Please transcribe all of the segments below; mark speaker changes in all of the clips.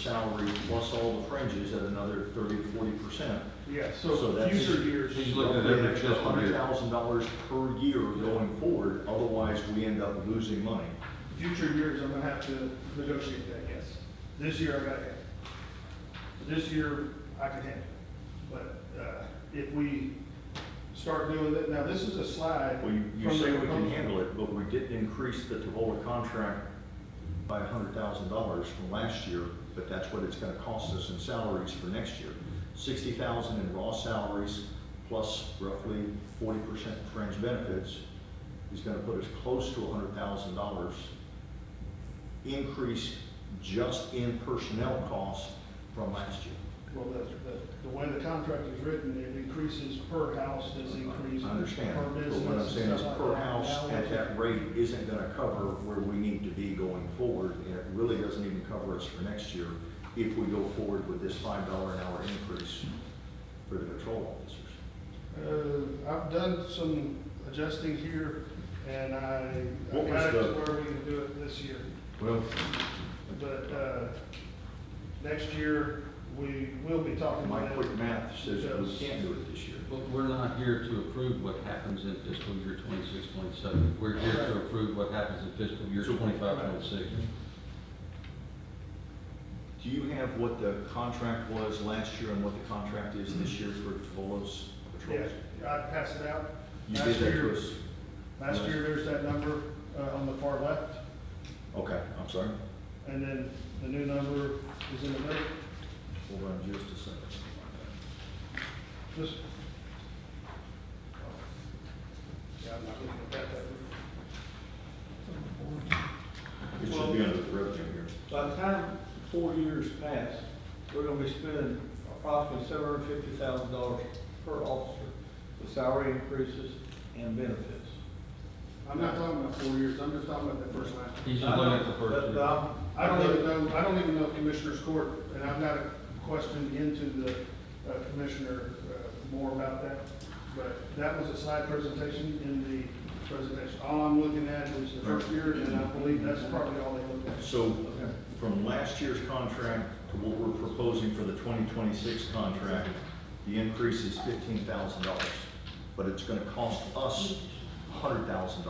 Speaker 1: salary plus all the fringes at another thirty to forty percent.
Speaker 2: Yeah,
Speaker 1: So
Speaker 2: so
Speaker 1: that's-
Speaker 2: future years.
Speaker 3: He's looking at every fiscal
Speaker 1: Hundred
Speaker 3: year.
Speaker 1: thousand dollars per year going forward, otherwise we end up losing money.
Speaker 2: Future years, I'm gonna have to negotiate that, yes. This year, I gotta have. it. This year, I can handle it. But, uh, if we start doing that, now, this is a slide.
Speaker 1: Well, you, you
Speaker 2: from
Speaker 1: say
Speaker 2: the
Speaker 1: we can
Speaker 2: proposal.
Speaker 1: handle it, but we didn't increase the Tavola contract by hundred thousand dollars from last year, but that's what it's gonna cost us in salaries for next year. Sixty thousand in raw salaries, plus roughly forty percent fringe benefits, is gonna put us close to hundred thousand dollars increase just in personnel costs from last year.
Speaker 2: Well, the, the, the way the contract is written, it increases per house, that's increased.
Speaker 1: I understand,
Speaker 2: Per
Speaker 1: but
Speaker 2: business
Speaker 1: what
Speaker 2: and
Speaker 1: I'm saying is
Speaker 2: stuff like
Speaker 1: per
Speaker 2: that.
Speaker 1: house
Speaker 2: Now,
Speaker 1: at that rate isn't gonna cover where we need to be going forward, and it really doesn't even cover us for next year if we go forward with this five dollar an hour increase for the patrol officers.
Speaker 2: Uh, I've done some adjusting here, and I, I
Speaker 1: What was
Speaker 2: got it to
Speaker 1: the-
Speaker 2: where we can do it this year.
Speaker 1: Well,
Speaker 2: But, uh, next year, we will be talking
Speaker 1: my
Speaker 2: about
Speaker 1: quick
Speaker 2: it.
Speaker 1: math says that we can't do it this year.
Speaker 3: But we're not here to approve what happens in fiscal year 26, 27. We're here to approve what happens in fiscal year 25, 26.
Speaker 1: Do you have what the contract was last year and what the contract is this year for Tavolo's
Speaker 2: Yeah,
Speaker 1: patrols?
Speaker 2: I passed it out.
Speaker 1: You
Speaker 2: Last
Speaker 1: did that to
Speaker 2: year-
Speaker 1: us,
Speaker 2: Last year, there's that number, uh, on the far left,
Speaker 1: okay, I'm sorry,
Speaker 2: and then the new number is in the middle.
Speaker 1: hold on just a second.
Speaker 2: This. Oh. Yeah, I'm not looking at that, that.
Speaker 1: It should be under the revenue here.
Speaker 4: By the time four years pass, we're gonna be spending approximately seven hundred and fifty thousand dollars per officer with salary increases and benefits.
Speaker 2: I'm not talking about four years, I'm just talking about that first line.
Speaker 3: He's just looking at the first
Speaker 4: But,
Speaker 3: year.
Speaker 4: uh,
Speaker 2: I don't even know, I don't even know if Commissioner's Court, and I've got a question into the uh, Commissioner uh, more about that, but that was a slide presentation in the presentation. All I'm looking at is the first year, and I believe that's probably all they looked at.
Speaker 1: So from last year's contract to what we're proposing for the 2026 contract, the increase is $15,000. But it's going to cost us $100,000,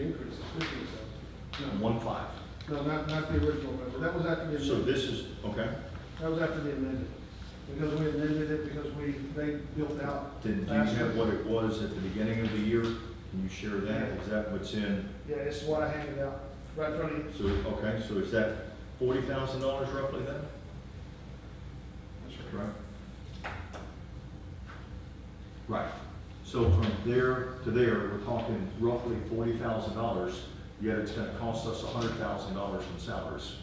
Speaker 2: Increase is fifteen thousand.
Speaker 1: one five.
Speaker 2: No, no, not, not the original number, that was after the
Speaker 1: So
Speaker 2: amendment,
Speaker 1: this is, okay,
Speaker 2: that was after the amendment. Because we amended it, because we, they built out.
Speaker 1: then do you
Speaker 2: faster.
Speaker 1: have what it was at the beginning of the year? Can you share that? Is that what's in?
Speaker 2: Yeah, it's what I handed out, right in front of you.
Speaker 1: So, okay, so is that $40,000 roughly then? Right. Right. So from there to there, we're talking roughly forty thousand dollars, yet it's gonna cost us hundred thousand dollars in salaries.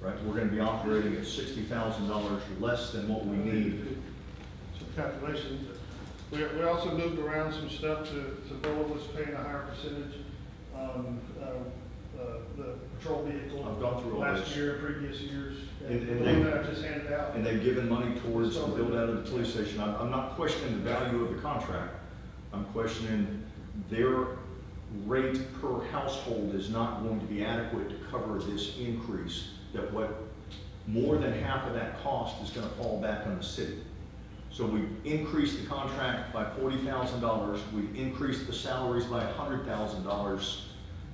Speaker 1: Right, we're gonna be operating at sixty thousand dollars less than what we need.
Speaker 2: Some calculations. We, we also moved around some stuff to, to Bola was paying a higher percentage, um, uh, uh, the patrol
Speaker 1: I've
Speaker 2: vehicle
Speaker 1: gone through all
Speaker 2: last
Speaker 1: this.
Speaker 2: year, previous years.
Speaker 1: And- and
Speaker 2: The one
Speaker 1: they-
Speaker 2: that I just handed out.
Speaker 1: And they've given money towards the build out of the police station. I'm, I'm not questioning the value of the contract. I'm questioning their rate per household is not going to be adequate to cover this increase. That what, more than half of that cost is gonna fall back on the city. So we increased the contract by forty thousand dollars, we increased the salaries by hundred thousand dollars.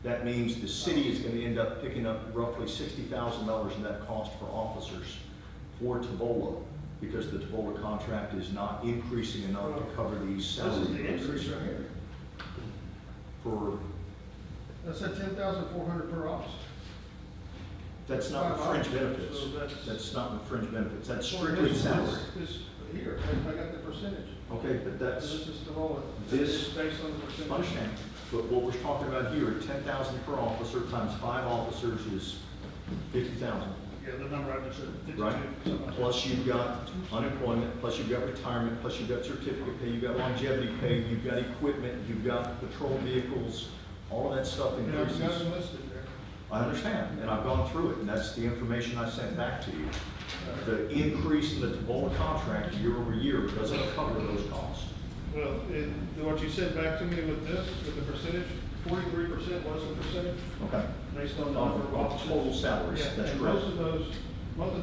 Speaker 1: That means the city is gonna end up picking up roughly sixty thousand dollars in that cost for officers for Tabola, because the Tabola contract is not increasing enough to cover these
Speaker 2: This
Speaker 1: salary
Speaker 2: is the increase
Speaker 1: increases
Speaker 2: right here.
Speaker 1: for,
Speaker 2: That's a ten thousand four hundred per officer.
Speaker 1: that's not the fringe benefits.
Speaker 2: So that's-
Speaker 1: That's not the fringe benefits, that's
Speaker 2: Well,
Speaker 1: strictly
Speaker 2: this-
Speaker 1: salary.
Speaker 2: This, this here, I- I got the percentage.
Speaker 1: Okay, but that's.
Speaker 2: This is the Bola.
Speaker 1: This-
Speaker 2: is Based on the percentage.
Speaker 1: Understand, but what we're talking about here, ten thousand per officer times five officers is fifty thousand,
Speaker 2: Yeah, the number I just said, fifty-two,
Speaker 1: right?
Speaker 2: something like that.
Speaker 1: Plus you've got unemployment, plus you've got retirement, plus you've got certificate pay, you've got longevity pay, you've got equipment, you've got patrol vehicles, all of that stuff
Speaker 2: Yeah, I've got
Speaker 1: increases.
Speaker 2: them listed there.
Speaker 1: I understand, and I've gone through it, and that's the information I sent back to you. The increase in the Tabola contract year over year doesn't cover those costs.
Speaker 2: Well, it, what you said back to me with this, with the percentage, forty-three percent was the percentage
Speaker 1: Okay.
Speaker 2: based on the number
Speaker 1: Of
Speaker 2: of
Speaker 1: of
Speaker 2: officers.
Speaker 1: total salaries,
Speaker 2: Yeah,
Speaker 1: that's
Speaker 2: and
Speaker 1: correct.
Speaker 2: most of those Most of